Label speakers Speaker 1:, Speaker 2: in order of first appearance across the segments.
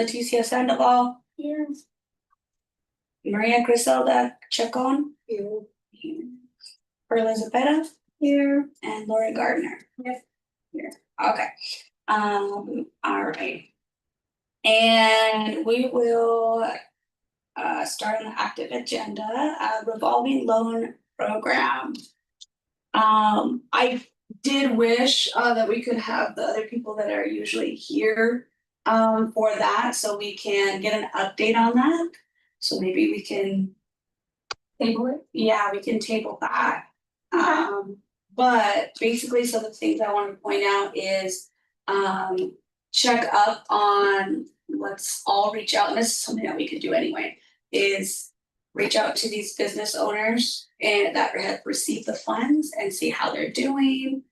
Speaker 1: Leticia Sandoval,
Speaker 2: Here.
Speaker 1: Maria Griselda Chacon,
Speaker 2: Here.
Speaker 1: Perla Zepeda,
Speaker 2: Here.
Speaker 1: and Lori Gardner.
Speaker 2: Yes.
Speaker 1: Here, okay, um, all right. And we will uh start on the active agenda, uh revolving loan program. Um, I did wish uh that we could have the other people that are usually here um for that, so we can get an update on that. So maybe we can,
Speaker 2: Table it.
Speaker 1: yeah, we can table that. Um, but basically, so the things I want to point out is, um, check up on, let's all reach out, and this is something that we could do anyway. Is reach out to these business owners and that have received the funds and see how they're doing.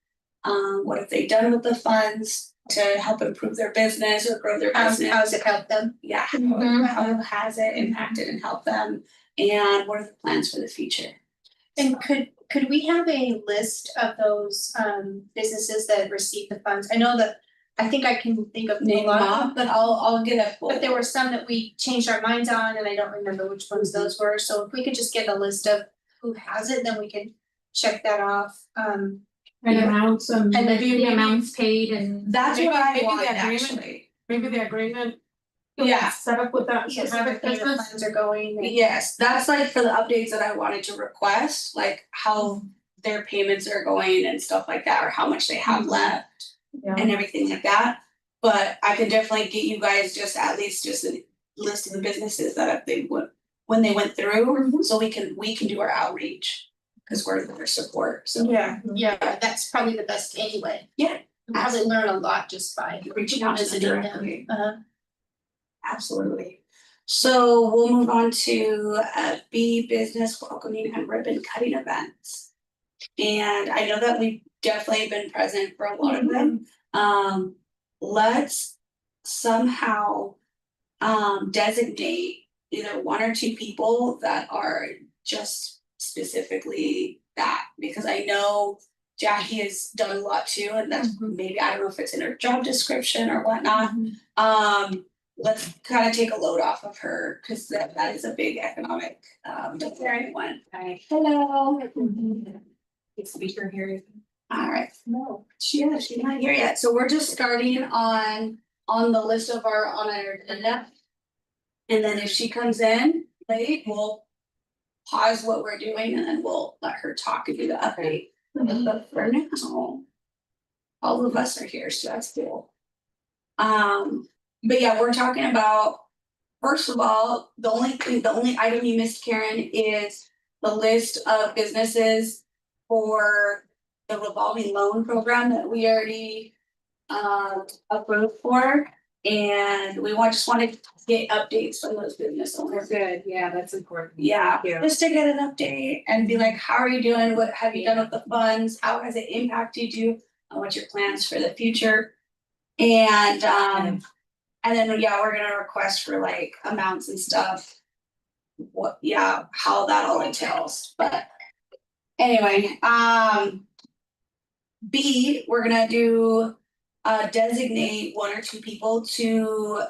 Speaker 1: Um, what have they done with the funds to help improve their business or grow their
Speaker 2: How's,
Speaker 1: business?
Speaker 2: how's it help them?
Speaker 1: Yeah, how,
Speaker 2: Mhm.
Speaker 1: how has it impacted and helped them? And what are the plans for the future?
Speaker 2: And could, could we have a list of those, um, businesses that received the funds? I know that, I think I can think of a
Speaker 1: Name
Speaker 2: lot,
Speaker 1: them
Speaker 2: of them, but I'll, I'll get
Speaker 1: a full-
Speaker 2: But there were some that we changed our minds on, and I don't remember which ones those were, so if we could just get a list of who has it, then we can check that off, um.
Speaker 3: And
Speaker 2: Yeah.
Speaker 3: amounts and
Speaker 2: And
Speaker 3: maybe the
Speaker 2: maybe-
Speaker 3: amounts paid and
Speaker 1: That's
Speaker 3: Maybe-
Speaker 1: what I
Speaker 3: maybe
Speaker 1: want,
Speaker 3: the agreement-
Speaker 1: actually.
Speaker 3: maybe the agreement.
Speaker 1: Yeah.
Speaker 3: Set up with that
Speaker 2: Yes, where the
Speaker 3: specific business.
Speaker 2: funds are going, and-
Speaker 1: Yes, that's like for the updates that I wanted to request, like how
Speaker 2: Mm-hmm.
Speaker 1: their payments are going and stuff like that, or how much they
Speaker 2: Mm-hmm.
Speaker 1: have left
Speaker 3: Yeah,
Speaker 1: and everything like that. But I can definitely get you guys just at least just a list of the businesses that if they would, when they went
Speaker 2: Mm-hmm.
Speaker 1: through, so we can, we can do our outreach. Cause we're their support, so
Speaker 2: Yeah, yeah, that's probably the best anyway.
Speaker 1: Yeah.
Speaker 2: You Probably learn a lot just by
Speaker 1: reaching out to them
Speaker 2: visiting
Speaker 1: directly.
Speaker 2: them, uh,
Speaker 1: Absolutely. So we'll move on to uh B business welcoming and ribbon cutting events. And I know that we've definitely been present for a lot of them. Um, let's somehow um designate either one or two people that are just specifically that, because I know Jackie has done a lot too, and that's
Speaker 3: Mhm.
Speaker 1: maybe, I don't know if it's in her job description or whatnot. Um, let's kind of take a load off of her, because that, that is a big economic, um, development one.
Speaker 4: Hi,
Speaker 1: Hello. Mm-hmm.
Speaker 4: it's speaker here.
Speaker 1: All right,
Speaker 2: no,
Speaker 1: she, yeah, she's not here yet, so we're just starting on, on the list of our, on our agenda. And then if she comes in late, we'll pause what we're doing and then we'll let her talk and do the update. But for now, all of us are here, so that's cool. Um, but yeah, we're talking about, first of all, the only thing, the only item you missed, Karen, is the list of businesses for the revolving loan program that we already um approved for. And we want, just wanted to get updates from those business
Speaker 4: We're
Speaker 1: owners.
Speaker 4: good, yeah, that's important.
Speaker 1: Yeah,
Speaker 4: Yeah.
Speaker 1: just to get an update and be like, how are you doing? What have you done with the funds? How has it impacted you? And what's your plans for the future? And um, and then, yeah, we're gonna request for like amounts and stuff. What, yeah, how that all entails, but anyway, um. B, we're gonna do uh designate one or two people to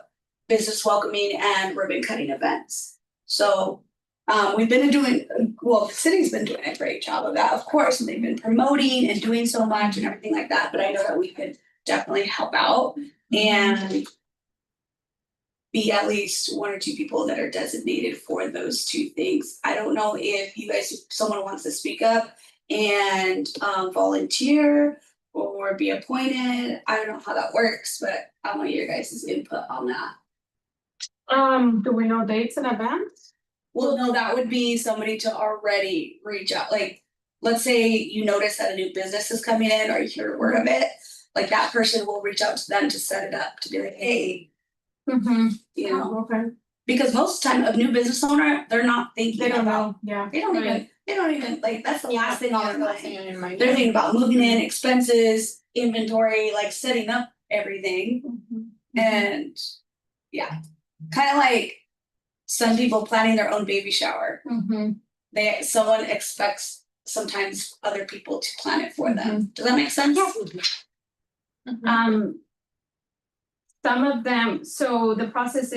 Speaker 1: business welcoming and ribbon cutting events. So um, we've been doing, well, the city's been doing a great job of that, of course, and they've been promoting and doing so much and everything like that, but I know that we could definitely help out and be at least one or two people that are designated for those two things. I don't know if you guys, if someone wants to speak up and um volunteer or be appointed. I don't know how that works, but I want your guys' input on that.
Speaker 3: Um, do we know dates and events?
Speaker 1: Well, no, that would be somebody to already reach out, like, let's say you notice that a new business is coming in or you hear word of it. Like that person will reach out to them to set it up, to be like, hey,
Speaker 3: Mm-hmm.
Speaker 1: you know,
Speaker 3: Okay,
Speaker 1: because most of the time a new business owner, they're not
Speaker 3: they
Speaker 1: thinking
Speaker 3: don't
Speaker 1: about,
Speaker 3: know, yeah.
Speaker 1: they don't even,
Speaker 3: Right.
Speaker 1: they don't even, like, that's the last thing on their mind.
Speaker 4: in my.
Speaker 1: They're thinking about moving in, expenses, inventory, like setting up everything. And yeah, kind of like some people planning their own baby shower.
Speaker 3: Mm-hmm.
Speaker 1: they, someone expects sometimes other people to
Speaker 3: Mm-hmm.
Speaker 1: plan it for them. Does that make sense?
Speaker 3: Um. Some of them, so the process